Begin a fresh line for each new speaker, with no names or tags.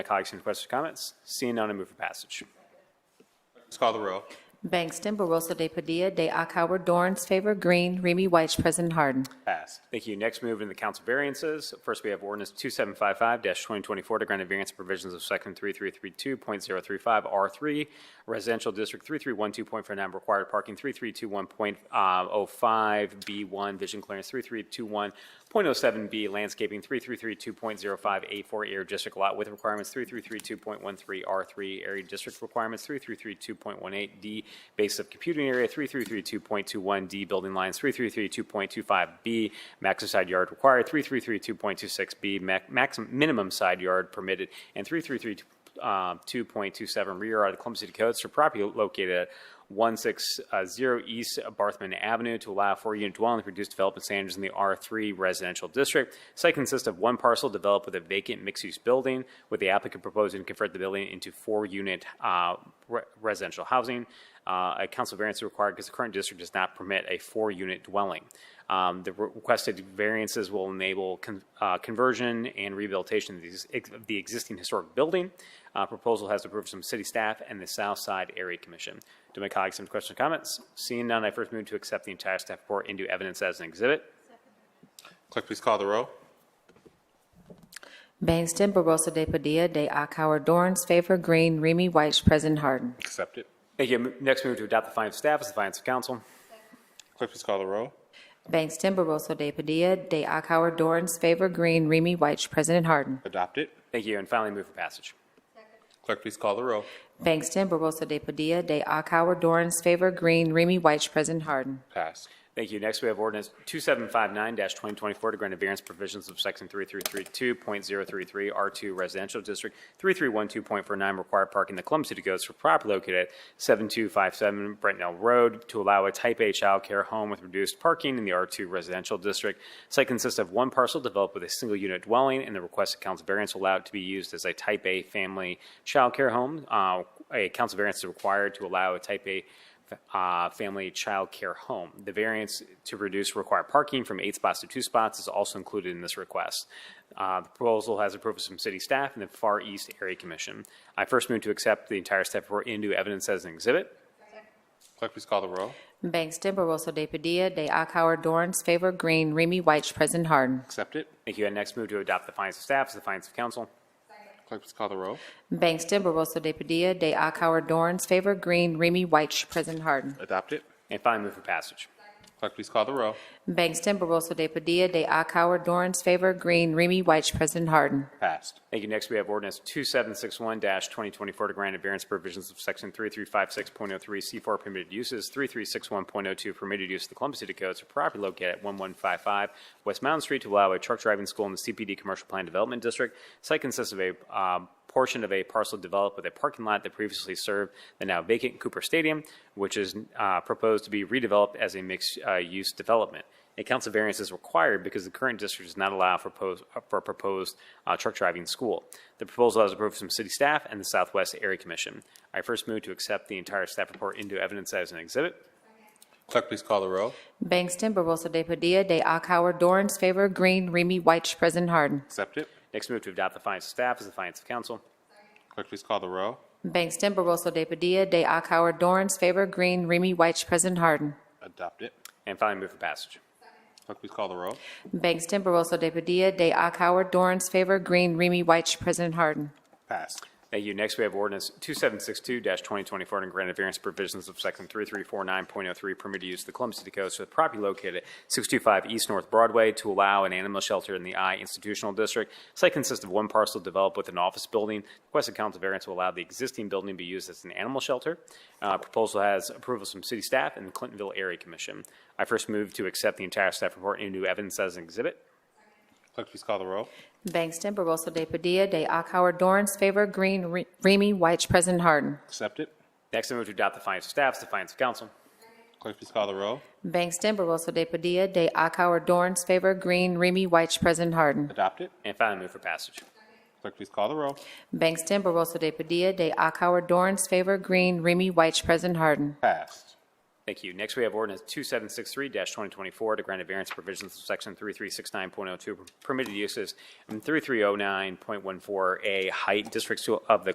My colleagues, any questions or comments? Seeing none, I move for passage.
Let's call the row.
Bangston, Barosa de Padilla, de Akauer, Dorans, Favor, Green, Remy White, President Harden.
Passed. Thank you. Next, we move into the council variances. First, we have ordinance 2755-2024 to grant a variance provisions of section 3332.035R3, residential district 3312.49, required parking 3321.05B1, vision clearance 3321.07B, landscaping 3332.05A4, area district lot with requirements 3332.13R3, area district requirements 3332.18D, base of computing area 3332.21D, building lines 3332.25B, maximum side yard required 3332.26B, max- maximum, minimum side yard permitted, and 333 um, 2.27 rear yard of the Columbus City Codes for property located at 160 East Barthman Avenue to allow for unit dwelling with reduced development standards in the R3 residential district. Site consists of one parcel developed with a vacant mixed-use building, with the applicant proposing to convert the building into four-unit uh, re- residential housing. Uh, A council variance is required because the current district does not permit a four-unit dwelling. Um, The re- requested variances will enable con- uh, conversion and rehabilitation of these- ex- of the existing historic building. Uh, Proposal has approval from city staff and the South Side Area Commission. Do my colleagues have any questions or comments? Seeing none, I first move to accept the entire staff report into evidence as an exhibit.
Clerk, please call the row.
Bangston, Barosa de Padilla, de Akauer, Dorans, Favor, Green, Remy White, President Harden.
Accept it.
Thank you. M- Next, move to adopt the findings of staff as the findings of council.
Clerk, please call the row.
Bangston, Barosa de Padilla, de Akauer, Dorans, Favor, Green, Remy White, President Harden.
Adopt it.
Thank you, and finally move for passage.
Clerk, please call the row.
Bangston, Barosa de Padilla, de Akauer, Dorans, Favor, Green, Remy White, President Harden.
Pass.
Thank you. Next, we have ordinance 2759-2024 to grant a variance provisions of section 3332.033 R2 Residential District, 3312.49 required parking the Columbus City Codes for property located at 7257 Brentnell Road to allow a type A childcare home with reduced parking in the R2 Residential District. Site consists of one parcel developed with a single unit dwelling and the requested council variance allowed to be used as a type A family childcare home. Uh, A council variance is required to allow a type A uh, family child care home. The variance to reduce required parking from eight spots to two spots is also included in this request. Uh, The proposal has approvals from city staff and the Far East Area Commission. I first move to accept the entire staff report into evidence as an exhibit.
Clerk, please call the row.
Bangston, Barosa de Padilla, de Akauer, Dorans, Favor, Green, Remy White, President Harden.
Accept it.
Thank you. And next move to adopt the findings of staff as the findings of council.
Clerk, please call the row.
Bangston, Barosa de Padilla, de Akauer, Dorans, Favor, Green, Remy White, President Harden.
Adopt it.
And finally, move for passage.
Clerk, please call the row.
Bangston, Barosa de Padilla, de Akauer, Dorans, Favor, Green, Remy White, President Harden.
Passed.
Thank you. Next, we have ordinance 2761-2024 to grant a variance provisions of section 3356.03 C4 permitted uses, 3361.02 permitted use of the Columbus City Codes for property located at 1155 West Mountain Street to allow a truck driving school in the CPD Commercial Plan Development District. Site consists of a um, portion of a parcel developed with a parking lot that previously served the now vacant Cooper Stadium, which is uh, proposed to be redeveloped as a mixed-use development. A council variance is required because the current district does not allow for pos- for a proposed uh, truck driving school. The proposal has approved from city staff and the Southwest Area Commission. I first move to accept the entire staff report into evidence as an exhibit.
Clerk, please call the row.
Bangston, Barosa de Padilla, de Akauer, Dorans, Favor, Green, Remy White, President Harden.
Accept it.
Next move to adopt the findings of staff as the findings of council.
Clerk, please call the row.
Bangston, Barosa de Padilla, de Akauer, Dorans, Favor, Green, Remy White, President Harden.
Adopt it.
And finally, move for passage.
Clerk, please call the row.
Bangston, Barosa de Padilla, de Akauer, Dorans, Favor, Green, Remy White, President Harden.
Passed.
Thank you. Next, we have ordinance 2762-2024 and granted variance provisions of section 3349.03 permitted use of the Columbus City Codes for the property located at 625 East North Broadway to allow an animal shelter in the I institutional district. Site consists of one parcel developed with an office building. Requested council variance will allow the existing building to be used as an animal shelter. Uh, Proposal has approvals from city staff and the Clintonville Area Commission. I first move to accept the entire staff report into evidence as an exhibit.
Clerk, please call the row.
Bangston, Barosa de Padilla, de Akauer, Dorans, Favor, Green, Re- Remy White, President Harden.
Accept it.
Next, I move to adopt the findings of staff, the findings of council.
Clerk, please call the row.
Bangston, Barosa de Padilla, de Akauer, Dorans, Favor, Green, Remy White, President Harden.
Adopt it.
And finally, move for passage.
Clerk, please call the row.
Bangston, Barosa de Padilla, de Akauer, Dorans, Favor, Green, Remy White, President Harden.
Passed.
Thank you. Next, we have ordinance 2763-2024 to grant a variance provisions of section 3369.02 permitted uses and 3309.14A height districts to- of the